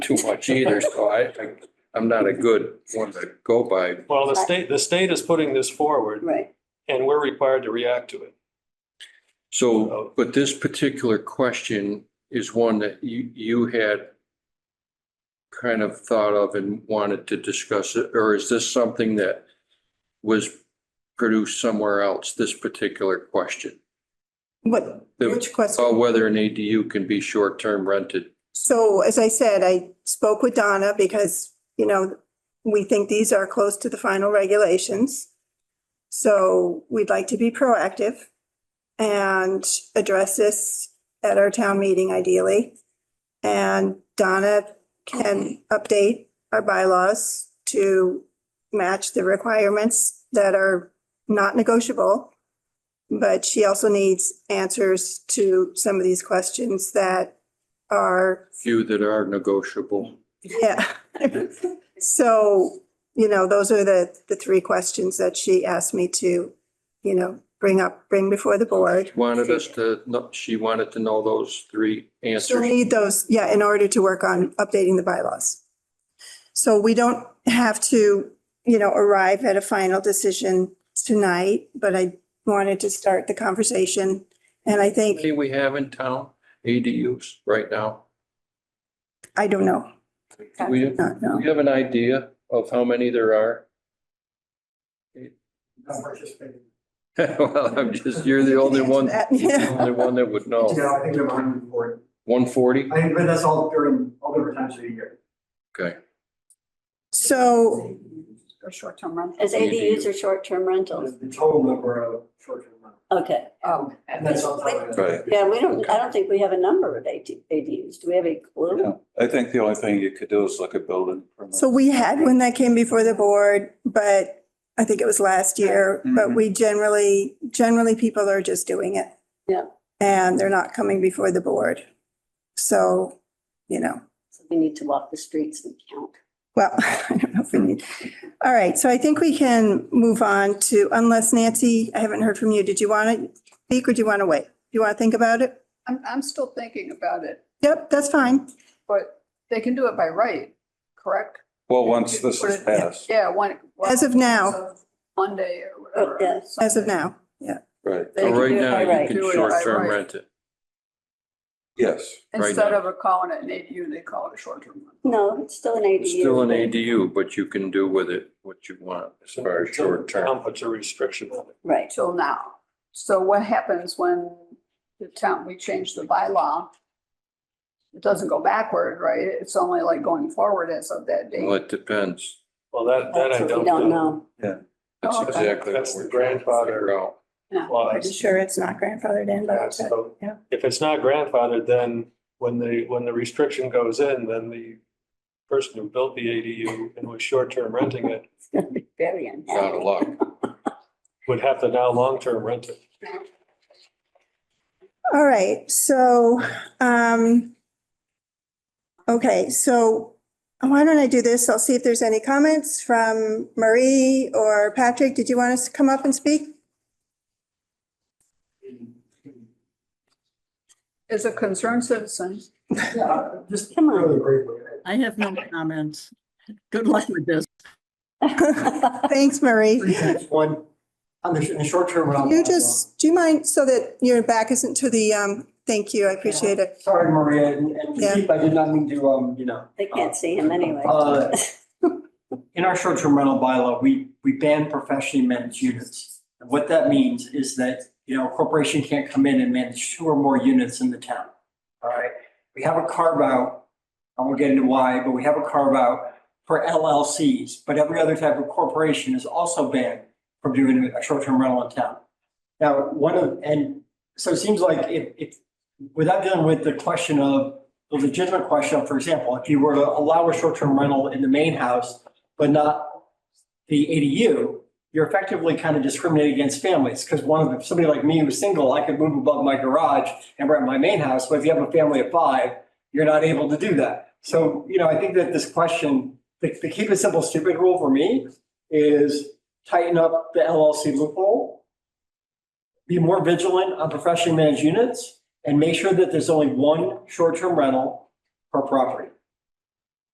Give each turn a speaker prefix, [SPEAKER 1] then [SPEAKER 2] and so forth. [SPEAKER 1] too much either, so I, I, I'm not a good one to go by.
[SPEAKER 2] Well, the state, the state is putting this forward
[SPEAKER 3] Right.
[SPEAKER 2] and we're required to react to it.
[SPEAKER 1] So, but this particular question is one that you, you had kind of thought of and wanted to discuss it, or is this something that was produced somewhere else, this particular question?
[SPEAKER 3] What,
[SPEAKER 1] The-
[SPEAKER 3] which question?
[SPEAKER 1] About whether an ADU can be short-term rented.
[SPEAKER 3] So as I said, I spoke with Donna because, you know, we think these are close to the final regulations. So we'd like to be proactive and address this at our town meeting ideally. And Donna can update our bylaws to match the requirements that are not negotiable. But she also needs answers to some of these questions that are
[SPEAKER 1] few that are negotiable.
[SPEAKER 3] yeah. So, you know, those are the, the three questions that she asked me to, you know, bring up, bring before the board.
[SPEAKER 1] Wanted us to, know- she wanted to know those three
[SPEAKER 3] So we
[SPEAKER 1] answers.
[SPEAKER 3] need those, yeah, in order to work on updating the bylaws. So we don't have to, you know, arrive at a final decision tonight, but I wanted to start the conversation. And I think,
[SPEAKER 1] Anything we have in town, ADUs right now?
[SPEAKER 3] I don't know,
[SPEAKER 1] Do We, do
[SPEAKER 3] not know.
[SPEAKER 1] we have an idea of how many there are?
[SPEAKER 4] not participating.
[SPEAKER 1] Well, I'm just, you're the only one, you're the only one that would know.
[SPEAKER 4] Yeah, I think we have hundred and forty.
[SPEAKER 1] One forty?
[SPEAKER 4] I think, but that's all during, all different times of the year.
[SPEAKER 1] Okay.
[SPEAKER 3] So
[SPEAKER 5] Or short-term rental.
[SPEAKER 6] As ADUs or short-term rentals,
[SPEAKER 4] The the total number of short-term rentals.
[SPEAKER 6] okay.
[SPEAKER 5] Oh.
[SPEAKER 4] And that's on top of
[SPEAKER 7] Right.
[SPEAKER 4] that.
[SPEAKER 6] Yeah, we don't, I don't think we have a number of AT ADUs. Do we have a clue?
[SPEAKER 7] Yeah, I think the only thing you could do is look at building. permits.
[SPEAKER 3] So we had one that came before the board, but I think it was last year, but
[SPEAKER 7] Mhm.
[SPEAKER 3] we generally, generally people are just doing it.
[SPEAKER 6] Yeah.
[SPEAKER 3] And they're not coming before the board. So, you know,
[SPEAKER 6] So We need to walk the streets and count.
[SPEAKER 3] well, I don't know if we need. All right, so I think we can move on to, unless Nancy, I haven't heard from you. Did you want to speak or do you want to wait? Do you want to think about it?
[SPEAKER 5] I'm, I'm still thinking about it,
[SPEAKER 3] Yep, that's fine.
[SPEAKER 5] but they can do it by right, correct?
[SPEAKER 7] Well, once this is passed,
[SPEAKER 5] Yeah, one.
[SPEAKER 3] As of now,
[SPEAKER 5] Monday or whatever.
[SPEAKER 6] Oh, yes.
[SPEAKER 3] as of now, yeah.
[SPEAKER 7] right,
[SPEAKER 5] They can
[SPEAKER 1] Right
[SPEAKER 5] do it
[SPEAKER 1] now,
[SPEAKER 5] by
[SPEAKER 1] you
[SPEAKER 5] right.
[SPEAKER 1] can
[SPEAKER 5] Do it by
[SPEAKER 1] short-term
[SPEAKER 5] right.
[SPEAKER 1] rent it.
[SPEAKER 7] yes.
[SPEAKER 1] right
[SPEAKER 5] Instead
[SPEAKER 1] now.
[SPEAKER 5] of calling it an ADU, they call it a short-term rental.
[SPEAKER 6] No, it's still an ADU.
[SPEAKER 1] It's still an ADU, but you can do with it what you want as far as short-term.
[SPEAKER 2] Town puts a restriction on it.
[SPEAKER 6] Right.
[SPEAKER 5] till now. So what happens when the town, we change the bylaw? It doesn't go backward, right? It's only like going forward as of that
[SPEAKER 1] Well,
[SPEAKER 5] date.
[SPEAKER 1] it depends.
[SPEAKER 2] Well, that, that I
[SPEAKER 6] That's what
[SPEAKER 2] don't
[SPEAKER 6] we don't
[SPEAKER 2] know.
[SPEAKER 6] know.
[SPEAKER 1] That's
[SPEAKER 5] Oh, okay.
[SPEAKER 1] exactly what
[SPEAKER 2] That's
[SPEAKER 1] we're
[SPEAKER 2] the
[SPEAKER 1] trying to
[SPEAKER 2] grandfather.
[SPEAKER 1] figure out.
[SPEAKER 2] Well, I-
[SPEAKER 3] I'm sure it's not grandfathered in,
[SPEAKER 2] Yeah,
[SPEAKER 3] but
[SPEAKER 2] so
[SPEAKER 3] yeah.
[SPEAKER 2] If it's not grandfathered, then when the, when the restriction goes in, then the person who built the ADU and was short-term renting it
[SPEAKER 6] It's gonna be very
[SPEAKER 1] Out of
[SPEAKER 6] unhappy.
[SPEAKER 1] luck.
[SPEAKER 2] would have to now long-term rent it.
[SPEAKER 3] All right, so, um, okay, so why don't I do this? I'll see if there's any comments from Marie or Patrick. Did you want us to come up and speak?
[SPEAKER 5] As a concerned citizen,
[SPEAKER 4] Yeah, Uh, Just
[SPEAKER 6] Come on.
[SPEAKER 4] really briefly,
[SPEAKER 8] I have no comments. Good luck with this.
[SPEAKER 3] Thanks, Marie.
[SPEAKER 4] three
[SPEAKER 3] Can
[SPEAKER 4] things. One, on the, sh- in the short term. rental
[SPEAKER 3] You
[SPEAKER 4] bylaw.
[SPEAKER 3] just, do you mind, so that your back isn't to the, um, thank you, I appreciate it.
[SPEAKER 4] Sorry, Maria, and, and
[SPEAKER 3] Yeah.
[SPEAKER 4] Keith, I did not mean to, um, you know.
[SPEAKER 6] They can't see him anyway.
[SPEAKER 4] Uh, In our short-term rental bylaw, we, we ban professionally managed units. And what that means is that, you know, a corporation can't come in and manage two or more units in the town. All right, we have a carve-out, I won't get into why, but we have a carve-out for LLCs, but every other type of corporation is also banned from doing a short-term rental in town. Now, one of, and so it seems like if, if, without dealing with the question of the legitimate question, for example, if you were to allow a short-term rental in the main house, but not the ADU, you're effectively kind of discriminating against families, because one of them, somebody like me who's single, I could move above my garage and rent my main house, but if you have a family of five, you're not able to do that. So, you know, I think that this question, the, the keep it simple, stupid rule for me is tighten up the LLC loophole, be more vigilant on professionally managed units, and make sure that there's only one short-term rental per property.